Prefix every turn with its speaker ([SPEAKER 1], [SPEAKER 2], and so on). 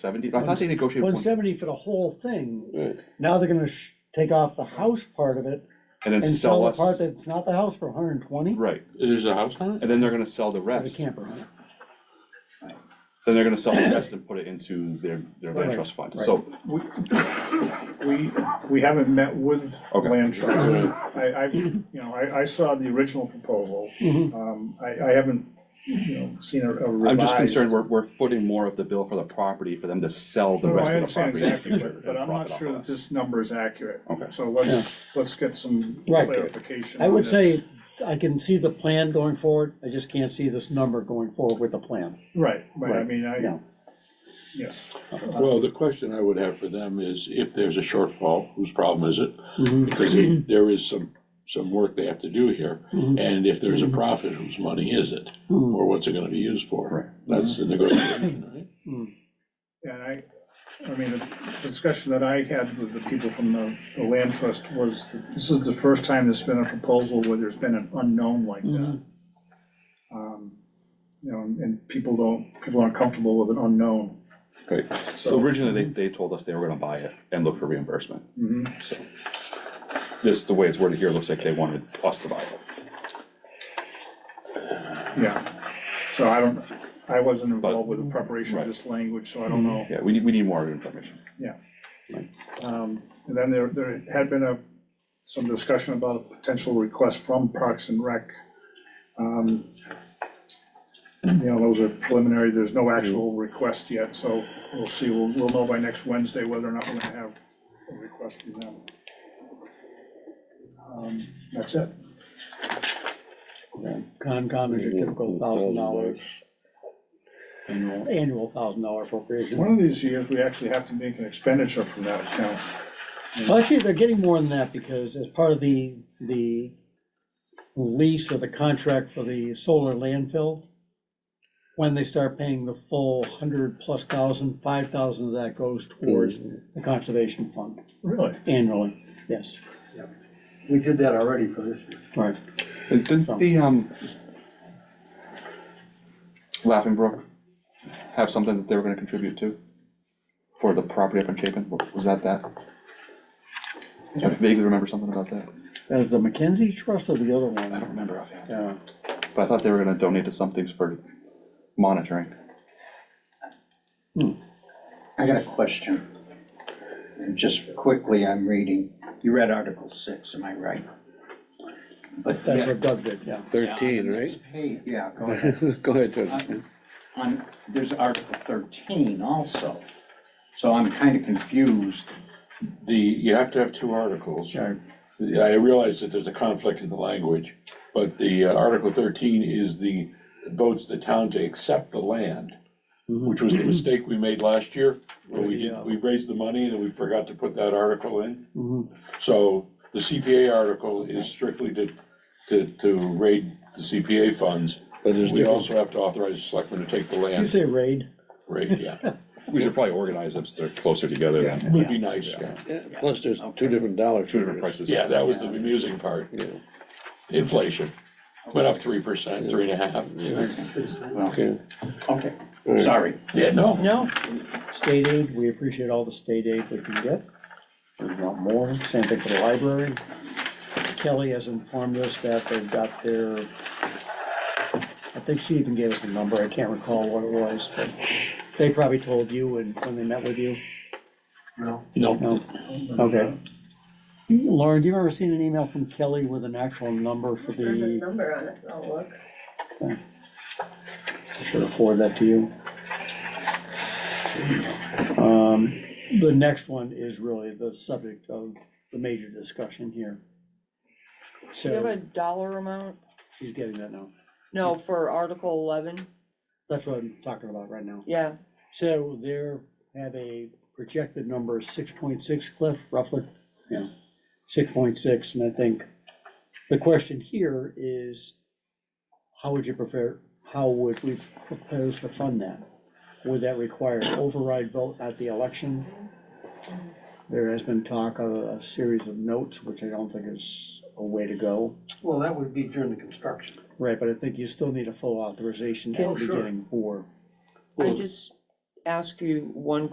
[SPEAKER 1] Seventy, I thought they negotiated
[SPEAKER 2] One
[SPEAKER 1] one,
[SPEAKER 2] seventy for the whole thing.
[SPEAKER 1] Right.
[SPEAKER 2] Now they're gonna sh- take off the house part of it
[SPEAKER 1] and then
[SPEAKER 2] and sell
[SPEAKER 1] sell
[SPEAKER 2] the
[SPEAKER 1] us,
[SPEAKER 2] part that's not the house for hundred and twenty for
[SPEAKER 1] right,
[SPEAKER 3] There's a house on it?
[SPEAKER 1] and then they're gonna sell the
[SPEAKER 2] the
[SPEAKER 1] rest, then
[SPEAKER 2] camper. huh?
[SPEAKER 1] they're gonna sell the rest and put it into their, their land
[SPEAKER 2] Right,
[SPEAKER 1] trust fund,
[SPEAKER 2] right.
[SPEAKER 1] so,
[SPEAKER 4] We, we, we haven't met with
[SPEAKER 1] Okay.
[SPEAKER 4] land trust. I, I've, you know, I, I saw the original proposal.
[SPEAKER 2] Mhm.
[SPEAKER 4] Um, I, I haven't, you know, seen a a revised.
[SPEAKER 1] I'm just concerned, we're, we're footing more of the bill for the property for them to sell the
[SPEAKER 4] No, Oh, I
[SPEAKER 1] rest of the
[SPEAKER 4] understand
[SPEAKER 1] property in the
[SPEAKER 4] exactly,
[SPEAKER 1] future.
[SPEAKER 4] but- But
[SPEAKER 1] and
[SPEAKER 4] I'm
[SPEAKER 1] profit
[SPEAKER 4] not
[SPEAKER 1] off
[SPEAKER 4] sure
[SPEAKER 1] of
[SPEAKER 4] that
[SPEAKER 1] us.
[SPEAKER 4] this number is accurate.
[SPEAKER 1] Okay.
[SPEAKER 4] So
[SPEAKER 2] Yeah.
[SPEAKER 4] let's, let's get some
[SPEAKER 2] Right.
[SPEAKER 4] clarification.
[SPEAKER 2] I
[SPEAKER 4] on
[SPEAKER 2] would
[SPEAKER 4] this.
[SPEAKER 2] say I can see the plan going forward. I just can't see this number going forward with the plan.
[SPEAKER 4] Right, right, I
[SPEAKER 2] Right,
[SPEAKER 4] mean, I,
[SPEAKER 2] yeah.
[SPEAKER 4] yeah.
[SPEAKER 3] Well, the question I would have for them is if there's a shortfall, whose problem is it?
[SPEAKER 2] Mhm.
[SPEAKER 3] Because they- there is some, some work they have to do here.
[SPEAKER 2] Mhm.
[SPEAKER 3] And if there's a profit, whose money is it?
[SPEAKER 2] Mhm.
[SPEAKER 3] Or what's it gonna be used for?
[SPEAKER 1] Right.
[SPEAKER 3] That's the negotiation, right?
[SPEAKER 4] And I, I mean, the discussion that I had with the people from the, the land trust was, that this is the first time there's been a proposal where there's been an unknown like that. Um, You know, and- and people don't, people aren't comfortable with an unknown,
[SPEAKER 1] Right, so
[SPEAKER 4] so.
[SPEAKER 1] originally, they, they told us they were gonna buy it and look for reimbursement,
[SPEAKER 4] Mhm.
[SPEAKER 1] so. This, the way it's worded here, looks like they wanted us to buy it,
[SPEAKER 4] Yeah, so I don't, I wasn't
[SPEAKER 1] But-
[SPEAKER 4] involved with the preparation of
[SPEAKER 1] Right.
[SPEAKER 4] this language, so I don't know.
[SPEAKER 1] yeah, we need, we need more information.
[SPEAKER 4] Um, And then there, there had been a, some discussion about a potential request from Parks and Rec. Um, You know, those are preliminary, there's no actual request yet, so we'll see, we'll, we'll know by next Wednesday whether or not we're gonna have a request from them. Um, That's it.
[SPEAKER 2] Concom is your typical thousand dollars,
[SPEAKER 1] Annual.
[SPEAKER 2] annual thousand dollar appropriation.
[SPEAKER 4] One of these years, we actually have to make an expenditure from that account.
[SPEAKER 2] Well, actually, they're getting more than that because as part of the, the lease or the contract for the solar landfill, when they start paying the full hundred plus thousand, five thousand of that goes towards the conservation fund
[SPEAKER 4] Really?
[SPEAKER 2] annually, yes.
[SPEAKER 5] We did that already for this year.
[SPEAKER 2] Right.
[SPEAKER 1] And Didn't the, um, Laughing Brook have something that they were gonna contribute to? For the property up in Chapin, Wa- was that that? I vaguely remember something about that,
[SPEAKER 2] As the Mackenzie Trust or the other
[SPEAKER 1] I don't
[SPEAKER 2] one?
[SPEAKER 1] remember offhand,
[SPEAKER 2] Yeah.
[SPEAKER 1] but I thought they were gonna donate to some things for monitoring.
[SPEAKER 5] I got a question. And just quickly, I'm reading, you read Article six, am I right? But
[SPEAKER 2] That's what Doug did, yeah.
[SPEAKER 6] Thirteen, right?
[SPEAKER 5] Hey, yeah, go ahead.
[SPEAKER 6] Go ahead, Doug.
[SPEAKER 5] On- On, there's Article thirteen also. So I'm kind of confused.
[SPEAKER 3] The, you have to have two articles.
[SPEAKER 2] Sure.
[SPEAKER 3] Yeah, I realize that there's a conflict in the language, but the uh, Article thirteen is the, votes the town to accept the land, which was the mistake we made last year, where we did, we raised the money and then we forgot to put that article in.
[SPEAKER 2] Mhm.
[SPEAKER 3] So the CPA article is strictly to, to, to raid the CPA funds.
[SPEAKER 6] But there's
[SPEAKER 3] We
[SPEAKER 6] different,
[SPEAKER 3] also have to authorize the selectmen to take the
[SPEAKER 2] You
[SPEAKER 3] land,
[SPEAKER 2] say raid?
[SPEAKER 3] raid, yeah,
[SPEAKER 1] We should probably organize them so they're closer together then,
[SPEAKER 3] would be nice, yeah.
[SPEAKER 6] yeah, plus there's two different dollar
[SPEAKER 1] two different prices.
[SPEAKER 3] Yeah, that was the amusing part,
[SPEAKER 6] Yeah.
[SPEAKER 3] inflation, went up three percent, three and a half.
[SPEAKER 5] Well,
[SPEAKER 6] Okay.
[SPEAKER 5] okay, sorry.
[SPEAKER 3] Yeah, no.
[SPEAKER 2] No. State aid, we appreciate all the state aid we can get. We want more, same thing for the library. Kelly has informed us that they've got their, I think she even gave us a number, I can't recall what it was, but they probably told you when, when they met with you.
[SPEAKER 3] No,
[SPEAKER 2] No, okay. Lauren, do you ever seen an email from Kelly with an actual number for
[SPEAKER 7] There's a
[SPEAKER 2] the,
[SPEAKER 7] number on it, I'll look.
[SPEAKER 2] should have forwarded that to you. Um, The next one is really the subject of the major discussion here.
[SPEAKER 8] Do you have a
[SPEAKER 2] So
[SPEAKER 8] dollar amount?
[SPEAKER 2] she's getting that now.
[SPEAKER 8] No, for Article eleven,
[SPEAKER 2] That's what I'm talking about right now.
[SPEAKER 8] yeah,
[SPEAKER 2] So there have a projected number, six point six, Cliff, roughly? Yeah, six point six, and I think the question here is, how would you prefer, how would we propose to fund that? Would that require an override vote at the election? There has been talk of a series of notes, which I don't think is a way to go.
[SPEAKER 5] Well, that would be during the construction.
[SPEAKER 2] Right, but I think you still need a full authorization at
[SPEAKER 8] Oh,
[SPEAKER 2] the
[SPEAKER 5] sure.
[SPEAKER 2] beginning for
[SPEAKER 8] I
[SPEAKER 3] Well-
[SPEAKER 8] just ask you one